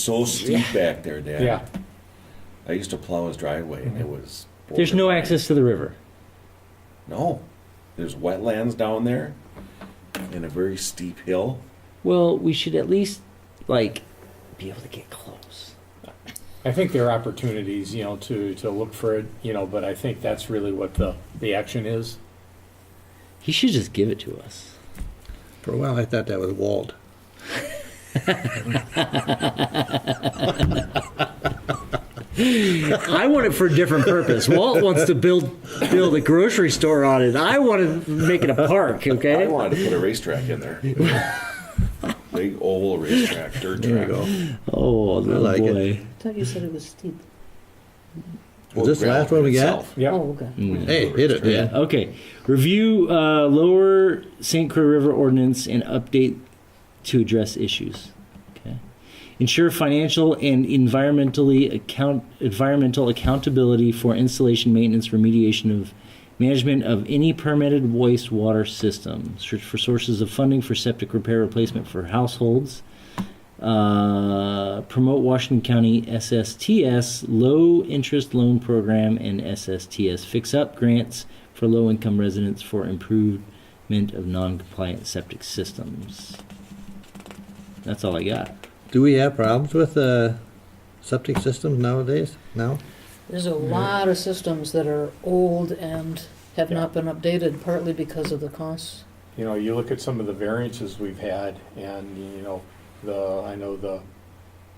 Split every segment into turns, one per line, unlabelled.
so steep back there, Dad.
Yeah.
I used to plow his driveway and it was.
There's no
borderline.
access to the river.
No. There's wetlands down there and a very steep hill.
Well, we should at least like be able to get close.
I think there are opportunities, you know, to, to look for it, you know, but I think that's really what the, the action is.
He should just give it to us.
For a while, I thought that was Walt.
I want it for a different purpose. Walt wants to build build a grocery store on it. I want to make it a park.
I
Okay.
wanted to put a racetrack in there. Big oval racetrack, dirt
There you
track.
go.
Oh, little
like it.
boy.
I thought you said it was steep.
Well,
this the
gravel
last one we got?
itself.
Yeah,
Oh, okay.
Hey, hit it,
Yeah. Okay. Review uh, lower St. Croix River ordinance and update to address issues. Okay. Ensure financial and environmentally account environmental accountability for installation, maintenance, remediation of management of any permitted wastewater system. Search for sources of funding for septic repair replacement for households. Uh, promote Washington County SSTS low interest loan program and SSTS fix up grants for low income residents for improvement of non compliant septic systems. That's all I got.
Do we have problems with uh, septic systems nowadays? No?
There's a lot of systems that are old and have not been updated, partly because of the costs.
you know, you look at some of the variances we've had and, you know, the, I know the,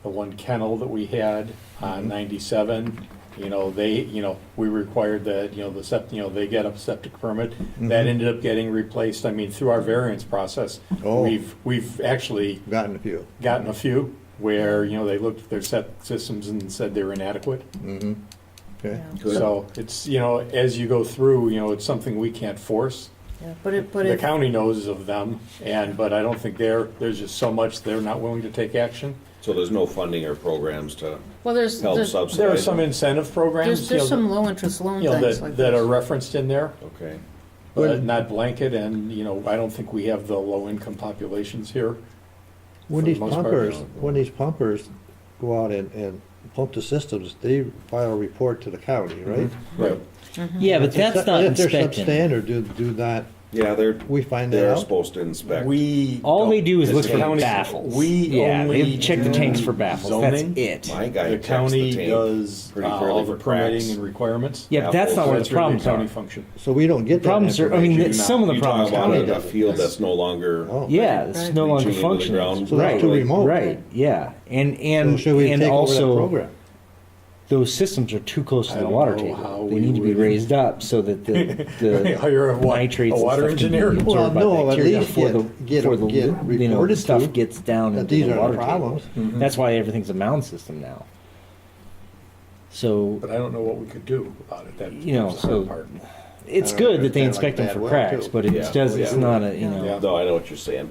the one kennel that we had on ninety-seven, you know, they, you know, we required that, you know, the sept, you know, they get a septic permit. That ended up getting replaced, I mean, through our variance process,
Oh.
we've, we've actually
Gotten a few.
gotten a few where, you know, they looked at their septic systems and said they were inadequate.
Mm-hmm. Okay.
Yeah.
Good.
So it's, you know, as you go through, you know, it's something we can't force.
Yeah, But it, but
The
it,
county knows of them, and, but I don't think they're, there's just so much they're not willing to take action.
So there's no funding or programs to
well, there's,
help
there's,
subsidize.
There are some
them?
incentive programs,
there's
you
there's some
know,
low-interest loan
you know,
things like
that, that are
this.
referenced in there,
Okay.
but not blanket, and, you know, I don't think we have the low-income populations here.
When
For the
these
most part,
pumpers,
no.
when these pumpers go out and, and pump the systems, they file a report to the county, right?
Right.
Yeah, but that's
If-
not
If they're
inspection.
substandard, do, do not,
Yeah, they're,
we find that
they're
out?
supposed to inspect.
We.
All they do is
as
look
the
for
county-
baffles.
We
yeah,
only.
they check the
do
tanks for baffles. That's
zoning.
it.
My guy
The
checks the
county
tank
does uh,
pretty fairly
all the
for cracks.
permitting and requirements.
Yeah, but that's not where
That's
the
really
problems
county
are.
function.
So we don't get that
Problems are. I mean,
information.
that- some of the
You talk
problems.
about
County
a- a
does.
field that's no longer.
Oh.
Yeah, it's
Right.
no
Reaching
longer
into the
functioning.
ground.
So that's
right,
too remote.
right? Yeah, and and
Oh, So should we
and
take over that
also
program?
those systems are too close to
I
the
don't
water
know
table.
how
They
we
need to be
would-
raised up so that the, the
Hire a wa-
nitrates
a water
and stuff
engineer?
Can be
Well,
absorbed by
no, at
bacteria
least
before the
get- get-
before the
get
you know
reported
stuff
to
gets down
that
into
these
the
are the
water
problems.
table. Mm-hmm. That's why everything's a mound system now. So
But I don't know what we could do about it. That
You know,
that's the hard
so-
part.
it's
I don't
good that they
understand,
inspect
like,
them for
bad
cracks,
weather, too.
but it
Yeah.
does.
Oh, yeah.
It's not a you
Yeah.
know.
Yeah.
No, I know what you're saying.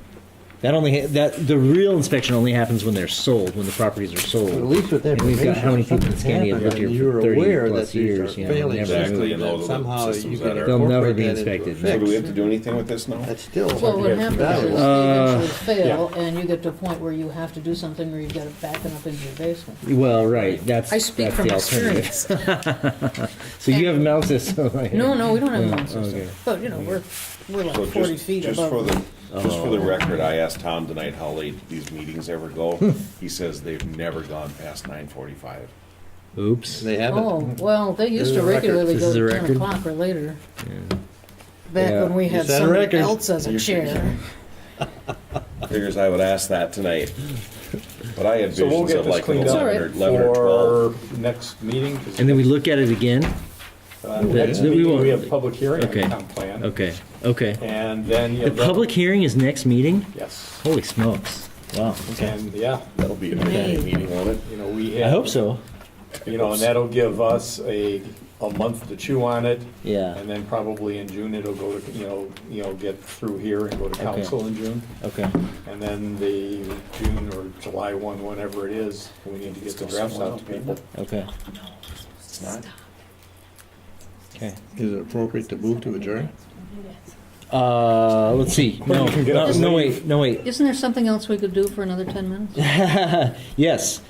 That only ha- that the real inspection only happens when they're sold, when the properties are sold.
At least with
And
information.
we've got how many people in
something's
Scandi have lived here
happened, you're
for 30
aware
plus
that these are
years, you know,
failing
never
systems,
moved.
and somehow you
Systems
can
that are-
They'll never
incorporate
be
that into a
inspected.
So do we
fix.
have to do anything with this now?
That's still.
Well, what
Yeah.
happens is
Uh,
they eventually fail, and you get to a point where you have to do something, or you've got it backing up into your basement.
Well, right. That's
I speak
that's
from
the alternative.
experience.
So you have mouse system.
No, no, we don't have mound
okay.
system, but, you know, we're, we're
So
like
just-
forty feet
Just for
above.
the, just for the record, I asked Tom tonight how late these meetings ever go. He says they've never gone past nine forty-five.
Oops.
They haven't.
Oh, well, they used to
This is a record.
regularly
This is
go
a
to ten
record?
o'clock or later. Back
Yeah.
when we had
set a
somebody
record.
else as a chair.
Figures I would ask that tonight. But I had
So we'll
visions
get
of
this
like an
cleaned up
eleven or
It's
eleven or twelve.
for next meeting. 'cause,
And then we look at it again.
uh, Next
we
meeting,
won't-
we have public hearing on the
Okay.
town plan.
Okay. Okay.
And then, you
The
know. that-
public hearing is next meeting.
Yes.
Holy smokes! Wow.
And, yeah,
That'll be a big meeting, won't it?
you know, we
I
have.
hope so.
You know, and that'll give us a, a month to chew on it.
Yeah.
And then probably in June, it'll go to, you know, you know, get through here and go to council in June.
Okay.
And then the June or July one, whenever it is, we need to get the drafts out to people.
Okay. Okay.
Is it appropriate to move to adjourn?
Uh, let's see. No,
can get up
no,
and
no,
leave.
wait, no, wait.
Isn't there something else we could do for another ten minutes?
Yes.